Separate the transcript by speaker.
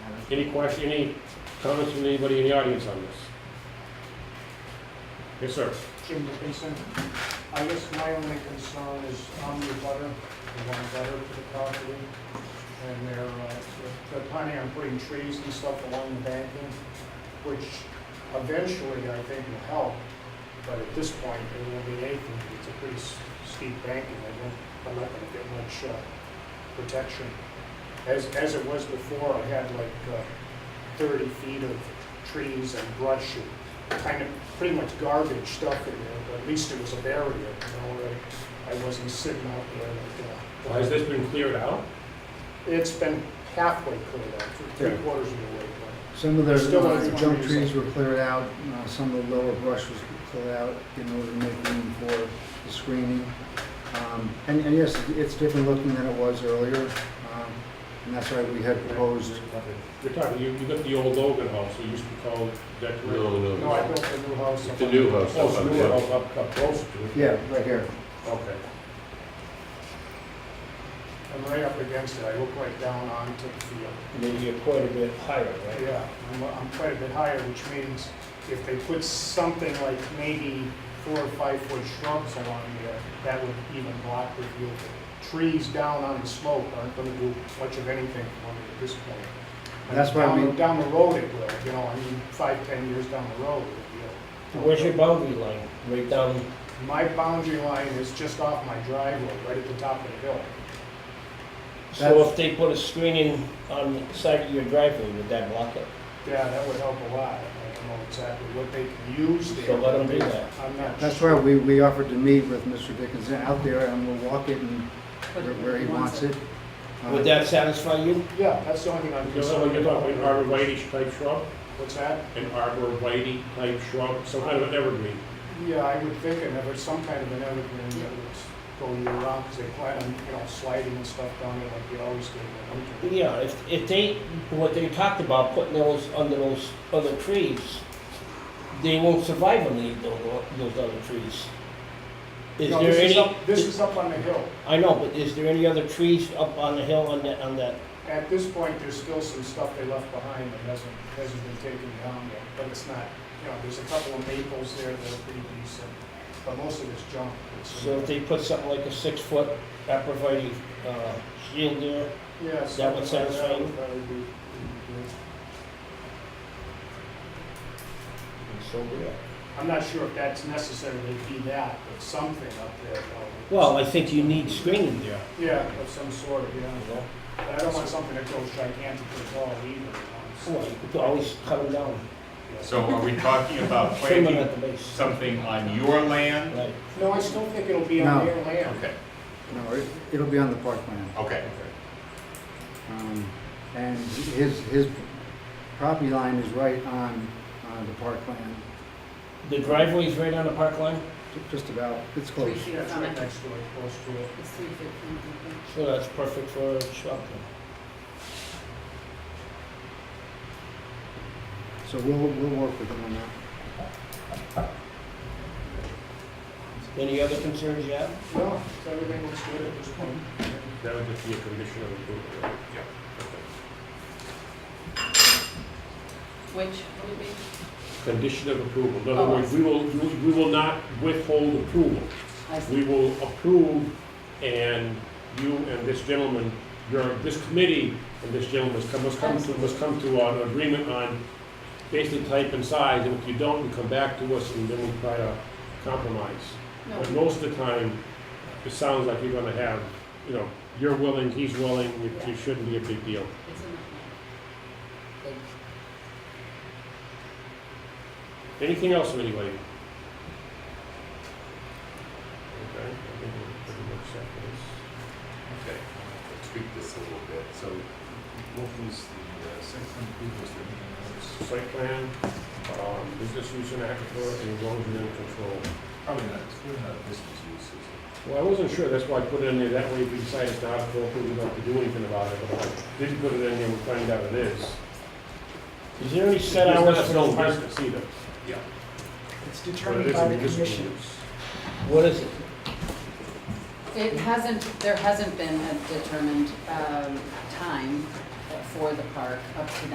Speaker 1: Any question, any comments from anybody in the audience on this? Yes, sir.
Speaker 2: Jim Dickinson. I guess my only concern is on the butter, the one butter to the property. And they're, uh, they're planning on putting trees and stuff along the banking, which eventually I think will help. But at this point, it won't be anything. It's a pretty s- steep banking. I don't, I'm not gonna get much, uh, protection. As, as it was before, I had like, uh, thirty feet of trees and brush and kind of pretty much garbage stuff in there, but at least it was a barrier, you know, where I wasn't sitting out there
Speaker 1: Well,
Speaker 2: like,
Speaker 1: Has
Speaker 2: uh,
Speaker 1: this been cleared out?
Speaker 2: it's been halfway cleared out, for three
Speaker 3: Yeah.
Speaker 2: quarters of the way,
Speaker 3: Some of the
Speaker 2: Still
Speaker 3: uh,
Speaker 2: has
Speaker 3: junk
Speaker 2: one
Speaker 3: trees
Speaker 2: reason.
Speaker 3: were cleared out, uh, some of the lower brush was cleared out in order to make room for the screening. Um, And, and yes, it's different looking than it was earlier, um, and that's why we had proposed,
Speaker 1: You're talking, you, you got the old Logan house, it used to be called, that.
Speaker 4: No,
Speaker 2: but, no, I
Speaker 4: no,
Speaker 2: built a new house.
Speaker 4: it's a new house.
Speaker 1: Oh, so
Speaker 4: up
Speaker 1: you were
Speaker 4: there.
Speaker 1: up, up up close to it?
Speaker 3: yeah, right here.
Speaker 1: Okay.
Speaker 2: I'm right up against it, I look right down onto the field.
Speaker 5: Maybe you're quite a bit higher, right?
Speaker 2: Yeah, I'm, I'm quite a bit higher, which means if they put something like maybe four or five foot shrubs along there, that would even block the view. Trees down on the slope aren't gonna do much of anything for me at this point. And
Speaker 3: That's why
Speaker 2: down-
Speaker 3: we-
Speaker 2: Down the road it will, you know, I mean, five, ten years down the road it
Speaker 5: Where's your boundary line? Right down,
Speaker 2: will. My boundary line is just off my driveway, right at the top of the hill.
Speaker 5: so if they put a screening on the side of your driveway, would that block it?
Speaker 2: Yeah, that would help a lot. I don't know exactly what they can use there.
Speaker 5: So let 'em do that.
Speaker 2: I'm not
Speaker 3: That's
Speaker 2: sure.
Speaker 3: why we, we offered to meet with Mr. Dickinson out there, and we'll walk it and where where he wants it.
Speaker 2: Uh-huh.
Speaker 3: Uh,
Speaker 5: Would that satisfy you?
Speaker 2: Yeah, that's the only thing I'm
Speaker 1: You know,
Speaker 2: concerned
Speaker 1: when you're
Speaker 2: about.
Speaker 1: talking arborvitae type shrub,
Speaker 2: What's that?
Speaker 1: an arborvitae type shrub, some kind of an evergreen.
Speaker 2: Yeah, I would think an ever, some kind of an evergreen that would go year round, because they plan on, you know, sliding and stuff down there like they always do in the winter.
Speaker 5: Yeah, if, if they, what they talked about, putting those under those other trees, they won't survive on the- those, those other trees. Is
Speaker 2: No, this
Speaker 5: there any,
Speaker 2: up- This is up on the hill.
Speaker 5: I know, but is there any other trees up on the hill on that, on that?
Speaker 2: At this point, there's still some stuff they left behind that hasn't, hasn't been taken down yet, but it's not, you know, there's a couple of maples there that are pretty decent, but most of it's junk. It's-
Speaker 5: So if they put something like a six-foot apervite, uh, shield there,
Speaker 2: Yeah.
Speaker 5: that would
Speaker 2: something like
Speaker 5: satisfy you?
Speaker 2: That would be, would be good.
Speaker 5: and so be it.
Speaker 2: I'm not sure if that's necessarily be that, but something up there. though.
Speaker 5: Well, I think you need screening there,
Speaker 2: Yeah, of some sort, yeah.
Speaker 5: you know?
Speaker 2: But I don't want something that goes gigantic as well either. you know, it's-
Speaker 5: Well, you could always cut them down,
Speaker 2: yeah.
Speaker 6: So are we talking about
Speaker 5: trim them
Speaker 6: planting
Speaker 5: at the base,
Speaker 6: something on your land?
Speaker 5: right?
Speaker 2: No, I still think it'll be on
Speaker 3: No.
Speaker 2: their land.
Speaker 6: Okay,
Speaker 3: No, it- it'll be on the park plan.
Speaker 6: okay.
Speaker 3: Um, And his, his property line is right on uh, the park plan,
Speaker 5: The driveway's right on the park line,
Speaker 3: ju- just about, it's
Speaker 7: Three
Speaker 3: close.
Speaker 7: feet
Speaker 2: Yeah, it's
Speaker 7: from
Speaker 2: right
Speaker 7: it.
Speaker 2: next to it, close to it.
Speaker 7: It's three feet from it.
Speaker 5: so that's perfect for a shop. then.
Speaker 3: So we'll, we'll work with him on that.
Speaker 5: Any other concerns you have?
Speaker 2: No, so everything looks good at this point.
Speaker 1: That would just be a condition of approval, right?
Speaker 6: Yeah.
Speaker 1: Okay.
Speaker 7: Which would be?
Speaker 1: Condition of approval. In other
Speaker 7: Oh, I
Speaker 1: words, we will, we will not withhold approval.
Speaker 7: I see.
Speaker 1: we will approve, and you and this gentleman, your, this committee and this gentleman must come, must come to, must come to an agreement on basic type and size, and if you don't, you come back to us, and then we try to compromise.
Speaker 7: No,
Speaker 1: But most of the time, it sounds like you're gonna have, you know, you're willing, he's willing, it it shouldn't be a big deal.
Speaker 7: it's in that.
Speaker 1: Anything else from anybody? Okay, I think we're pretty much set for this.
Speaker 6: Okay, Let's tweak this a little bit. So what was the uh, site plan approval,
Speaker 1: site plan, um, business use in aquifer, and erosion and control.
Speaker 6: Probably not, it's really not business use,
Speaker 1: Well, I wasn't sure, that's why I put it in there, that way if we decide it's not appropriate, we don't have to do anything about it, but I didn't put it in there, we'll find out it is.
Speaker 5: Is there any set
Speaker 1: It's
Speaker 5: hours
Speaker 1: not
Speaker 5: for
Speaker 1: zone
Speaker 5: the park?
Speaker 1: business either.
Speaker 6: Yeah.
Speaker 1: It's determined by the commission.
Speaker 5: What is it?
Speaker 7: It hasn't, there hasn't been a determined um, time for the park up to